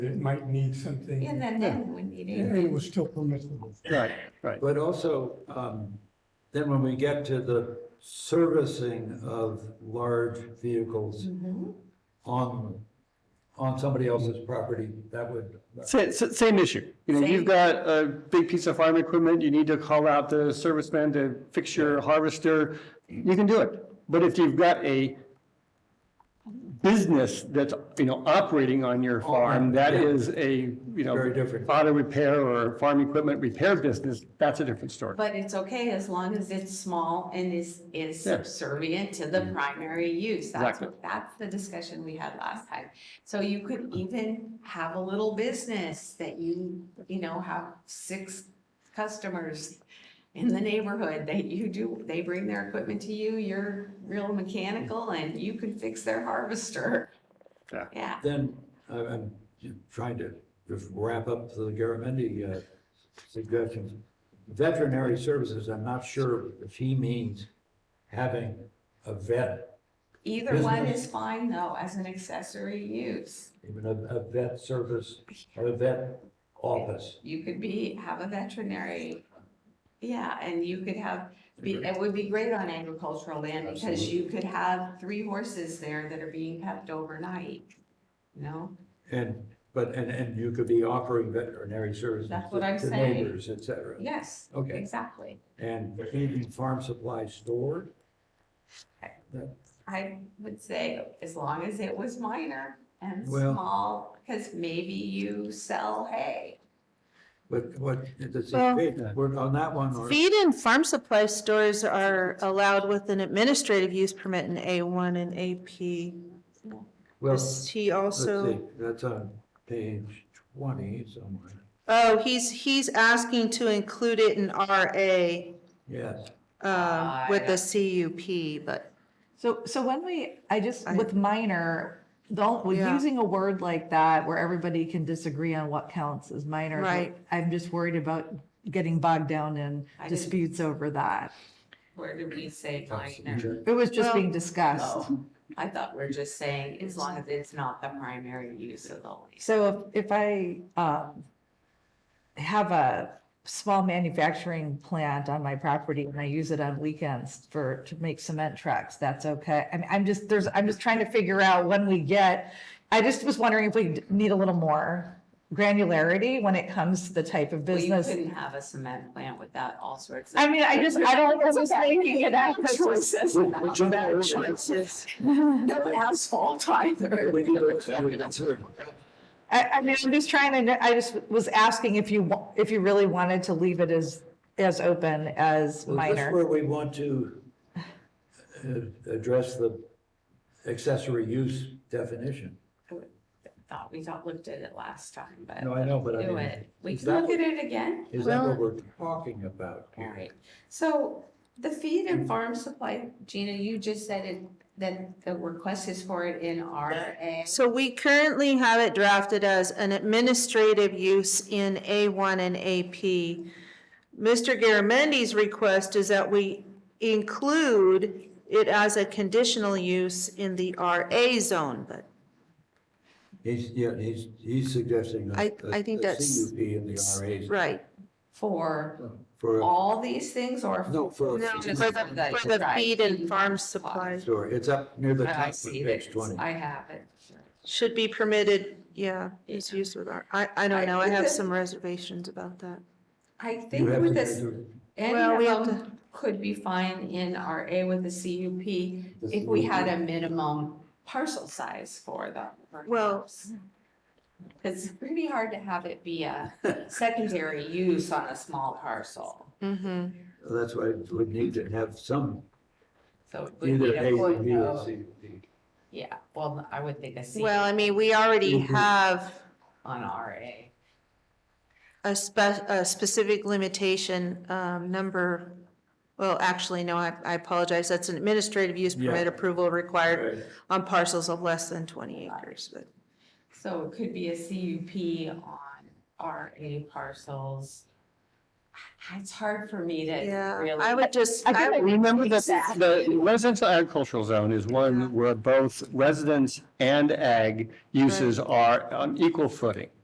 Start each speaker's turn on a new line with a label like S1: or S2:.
S1: it might need something.
S2: Yeah,
S1: And
S2: then, then we need
S1: it was
S2: it.
S1: still permissible.
S3: Right, right.
S4: But also, um, then when we get to the servicing of large vehicles
S2: Mhm.
S4: on, on somebody else's property, that would,
S3: Same, same issue. You know,
S2: Same.
S3: you've got a big piece of farm equipment, you need to call out the serviceman to fix your harvester, you can do it. But if you've got a business that's, you know, operating on your farm, that
S4: Oh, yeah.
S3: is a, you know.
S4: Very different.
S3: Auto repair or farm equipment repair business, that's a different story.
S2: But it's okay as long as it's small and is, is
S3: Yeah.
S2: subservient to the primary use. That's,
S3: Exactly.
S2: what- that's the discussion we had last time. So you could even have a little business that you, you know, have six customers in the neighborhood that you do, they bring their equipment to you, you're real mechanical and you can fix their harvester.
S3: Yeah.
S2: Yeah,
S4: then I- I'm trying to just wrap up the Garamendi uh, suggestions. Veterinary services, I'm not sure if he means having a vet,
S2: either one
S4: Business.
S2: is fine though, as an accessory use.
S4: even a a vet service or a vet office.
S2: You could be, have a veterinary, yeah, and you could have, be, it would be great on agricultural land because you could have three horses there that are being kept overnight. You know,
S4: And, but, and, and you could be offering veterinary services
S2: That's
S4: to
S2: what I'm
S4: to
S2: saying.
S4: neighbors, et cetera.
S2: yes,
S4: Okay,
S2: exactly.
S4: and feeding farm supply store,
S2: I would say as long as it was minor and
S4: Well-
S2: small, because maybe you sell hay.
S4: but what, does
S5: Well-
S4: it, we're on that one, or,
S5: Feed and farm supply stores are allowed with an administrative use permit in A1 and AP.
S4: well, let's
S5: Is he
S4: see,
S5: also,
S4: that's on page twenty somewhere.
S5: oh, he's, he's asking to include it in RA
S4: Yes,
S5: um, with the CUP, but
S6: So, so when we, I just,
S5: I- Oh,
S6: with minor, don't, with
S5: Yeah.
S6: using a word like that where everybody can disagree on what counts as minor.
S5: Right.
S6: I'm just worried about getting bogged down in
S2: I didn't-
S6: disputes over that.
S2: Where did we say minor?
S6: It was just
S5: Well-
S6: being discussed.
S2: Oh, I thought we're just saying as long as it's not the primary use of the land.
S6: So if if I um, have a small manufacturing plant on my property and I use it on weekends for, to make cement trucks, that's okay. I mean, I'm just, there's, I'm just trying to figure out when we get, I just was wondering if we need a little more granularity when it comes to the type of
S2: Well, you
S6: business.
S2: couldn't have a cement plant without all sorts of.
S6: I mean, I just, I don't, know who's making it up.
S7: Choices, bad choices. No asphalt either.
S6: I, I mean, I'm just trying to, I just was asking if you, wa- if you really wanted to leave it as, as open as
S4: well, is this
S6: minor.
S4: where we want to uh, address the accessory use definition?
S2: Thought we got, looked at it last time, but
S4: No, I know, but I
S2: Uh, do
S4: mean,
S2: it. We
S4: is
S2: can look
S4: that-
S2: at it again.
S4: is that what we're talking about
S2: All
S4: here?
S2: right. So the feed
S4: Mm.
S2: and farm supply, Gina, you just said it, that the request is for it in RA.
S5: so we currently have it drafted as an administrative use in A1 and AP. Mr. Garamendi's request is that we include it as a conditional use in the RA zone, but
S4: He's, yeah, he's, he's suggesting a-
S5: I- I
S4: a-
S5: think
S4: a
S5: that's-
S4: CUP in the RAs
S5: Right,
S2: For
S4: for, a-
S2: all these things or?
S4: no, for.
S5: No,
S4: a-
S5: just-
S2: just
S5: for
S2: the-
S5: for the
S2: right,
S5: feed and farm supplies
S4: Sure, it's up near the
S2: Oh, I
S4: top of
S2: see this.
S4: page 20.
S2: I have it.
S5: should be permitted, yeah, is used with our, I, I don't know, I have some reservations about that.
S2: I
S4: You
S2: think
S4: have
S2: with
S4: to
S2: this,
S4: do
S5: Well,
S2: any
S5: we have
S2: of them could be fine in RA with the CUP
S4: the
S2: if we had
S4: CUP.
S2: a minimum parcel size for them.
S5: Well-
S2: perhaps. It's pretty hard to have it be a secondary use on a small parcel,
S5: Mm-hmm.
S4: That's why we would need to have some,
S2: so it would be
S4: either
S2: a
S4: A or B or
S2: footnote.
S4: C.
S2: Yeah, well, I would think a C
S5: Well, I mean, we already
S4: Mhm.
S5: have
S2: on RA.
S5: a spe- a specific limitation, um, number, well, actually, no, I, I apologize, that's an administrative use permit approval required
S4: Right.
S5: on parcels of less than twenty acres, but,
S2: So it could be a CUP on RA parcels It's hard for me to
S5: Yeah,
S2: really.
S5: I would just,
S7: I think
S5: I,
S3: Remember that the
S7: Exactly.
S3: residential agricultural zone is
S5: Yeah.
S3: one where both residents and ag uses are on equal footing.